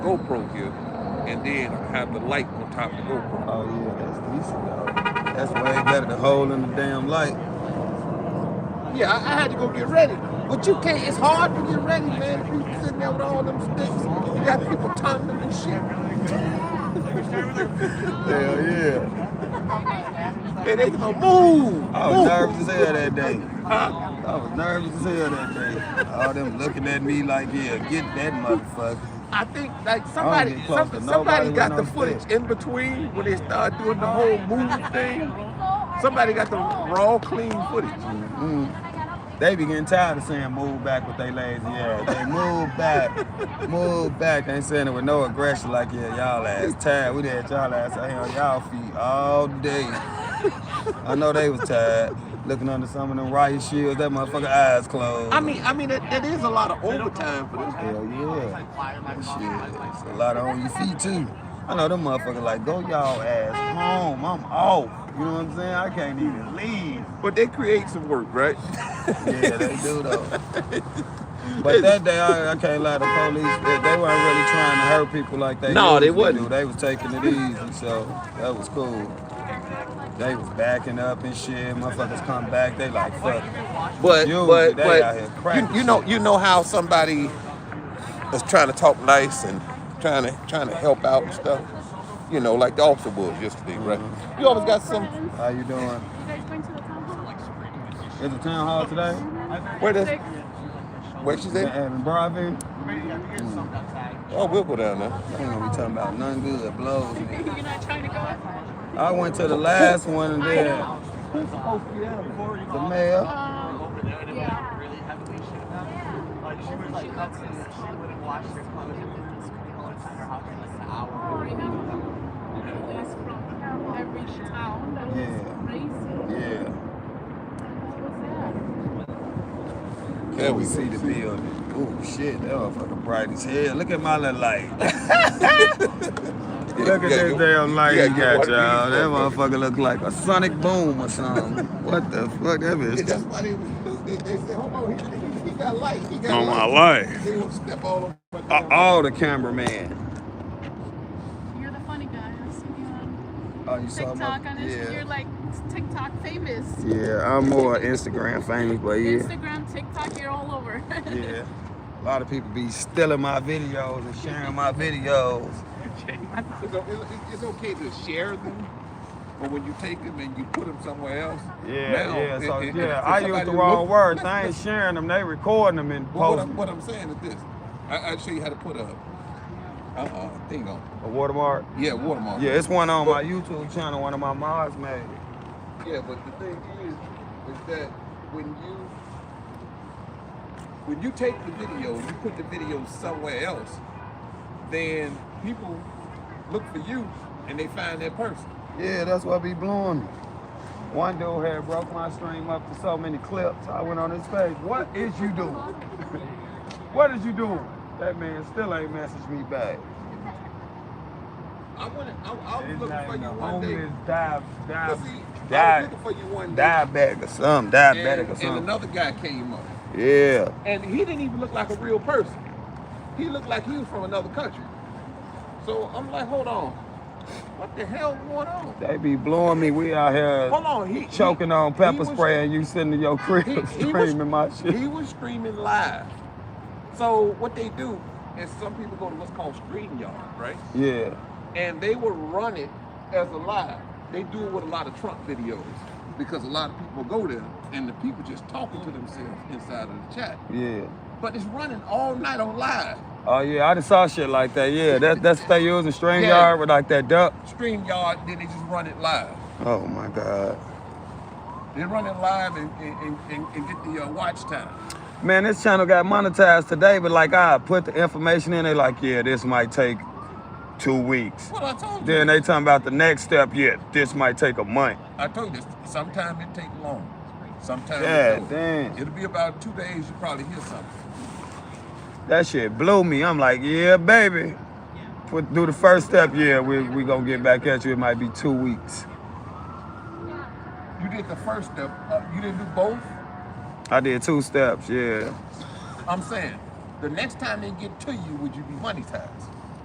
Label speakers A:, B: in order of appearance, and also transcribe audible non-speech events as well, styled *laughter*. A: GoPro here and then have the light on top of the GoPro.
B: Oh yeah, that's decent though. That's way better than holding the damn light.
C: Yeah, I, I had to go get ready. But you can't, it's hard to get ready, man, if you sitting there with all them sticks. You got people timing them and shit.
B: Hell yeah.
C: And they gonna move.
B: I was
C: move.
B: nervous as hell that day. I was nervous as hell that day. All them looking at me like, yeah, get that motherfucker.
C: I think like somebody
B: get
C: some,
B: close to
C: somebody
B: nobody
C: got
B: when
C: the
B: I'm
C: footage
B: sick.
C: in between when they started doing the whole movie thing. Somebody got the raw clean footage.
B: They be getting tired of saying move back with they lazy ass. They move back, move back. They ain't saying it with no aggression like, yeah, y'all ass tired. We had y'all ass out here on y'all feet all day. I know they was tired. Looking under some of them riot shields, that motherfucker eyes closed.
C: I mean, I mean that, that is a lot of overtime for them.
B: Hell yeah. That Shit, it's a lot on your feet too. I know them motherfuckers like, go y'all ass home. I'm off. You know what I'm saying? I can't even leave.
C: But they create some work, right?
B: Yeah, they do *laughs* though. But that day, I, I can't lie, the police, they, they weren't really trying to hurt people like they
C: No, they
B: usually
C: wasn't.
B: do. They was taking it easy, so that was cool. They was backing up and shit. Motherfuckers come back, they like, fuck.
C: But
B: You,
C: but
B: they out here
C: but
B: cracking
C: you, you know
B: shit.
C: you know how somebody is trying to talk nice and trying to trying to help out and stuff. You know, like the officer was yesterday,
B: Mm-hmm.
C: right? You always got some
B: How you doing?
D: You guys going to the town hall?
B: Is the town hall today?
C: where does where she
B: In,
C: at?
B: in Broadview?
C: Oh, we'll go down there.
B: Damn, we talking about none good
D: *laughs*
B: blows, man.
D: You're not trying to go?
B: I went to the last one and then the mayor.
D: Um, Yeah. Oh,
B: Yeah. Yeah.
C: There we
B: we see the building. Oh shit, that motherfucker bright as hell. Look at my little light.
C: *laughs*
B: Look at this damn light
C: Yeah,
B: you got,
C: yeah.
B: y'all. That motherfucker look like a sonic boom
C: *laughs*
B: or something. what the fuck, that
C: That's
B: bitch?
C: why they, was- they, they said, hold on, he, he- he got light. He got
B: On my
C: light.
B: life.
C: They gonna step all over my
B: Uh, oh, the cameraman.
D: You're the funny guy. I've seen you on
B: Oh, you saw my,
D: TikTok on Instagram. You're
B: yeah.
D: like TikTok famous.
B: yeah, I'm more Instagram famous, but yeah.
D: Instagram, TikTok, you're all over. *laughs*
B: Yeah. A lot of people be stealing my videos and sharing my videos.
C: It's, o- it's- it's okay to share them, but when you take them and you put them somewhere else,
B: Yeah,
C: now,
B: yeah, so
C: it- it-
B: yeah,
C: if
B: I used
C: somebody
B: the wrong
C: look-
B: *laughs* words. I ain't sharing them. They recording them and
C: Well, what,
B: posting
C: I'm, what I'm saying is this: I, I show you how to put a uh, thing on.
B: a watermark.
C: Yeah, watermark.
B: Yeah, it's one on my YouTube channel. One of my mods made.
C: yeah. But the thing is, is that when you when you take the video, you put the video somewhere else, then people look for you and they find that person.
B: Yeah, that's what be blowing me. One dude had broke my stream up to so many clips. I went on his page. What is you doing? *laughs* what is you doing? That man still ain't messaged me back.
C: I want to. I, I was
B: His
C: looking
B: name
C: for you
B: the
C: one day.
B: homeless dive,
C: But
B: dive,
C: see, I was
B: dive,
C: looking for you one day.
B: diabetic or something. Diabetic
C: and,
B: or
C: and
B: something.
C: another guy came up.
B: yeah.
C: And he didn't even look like a real person. He looked like he was from another country. So I'm like, hold on. What the hell going on?
B: They be blowing me. We out here
C: Hold on. He,
B: choking
C: he-
B: on pepper
C: he was-
B: spray and you sitting in your crib
C: He- he was-
B: *laughs* screaming my shit.
C: He was streaming live. So what they do is some people go to what's called stream yard, right?
B: yeah.
C: and they will run it as a live. They do it with a lot of Trump videos because a lot of people go there and the people just talking to themselves inside of the chat.
B: Yeah.
C: But it's running all night on live.
B: Oh yeah, I just saw shit like that. Yeah, that,
C: *laughs*
B: that's what they use in string
C: Yeah.
B: yard with like that duck.
C: StreamYard, then they just run it live.
B: Oh my god.
C: They run it live and, and, and, and get the uh, watch time.
B: Man, this channel got monetized today, but like I put the information in, they like, yeah, this might take two weeks.
C: Well, I told you.
B: Then they talking about the next step, yeah, this might take a month.
C: I told you, sometimes it take long. Sometimes
B: Yeah,
C: it don't.
B: damn.
C: It'll be about two days, you probably hear something.
B: That shit blew me. I'm like, yeah, baby. Put do the first step, yeah, we we gonna get back at you. It might be two weeks.
C: You did the first step, uh, you didn't do both?
B: I did two steps, yeah.
C: I'm saying, the next time they get to you, would you be monetized?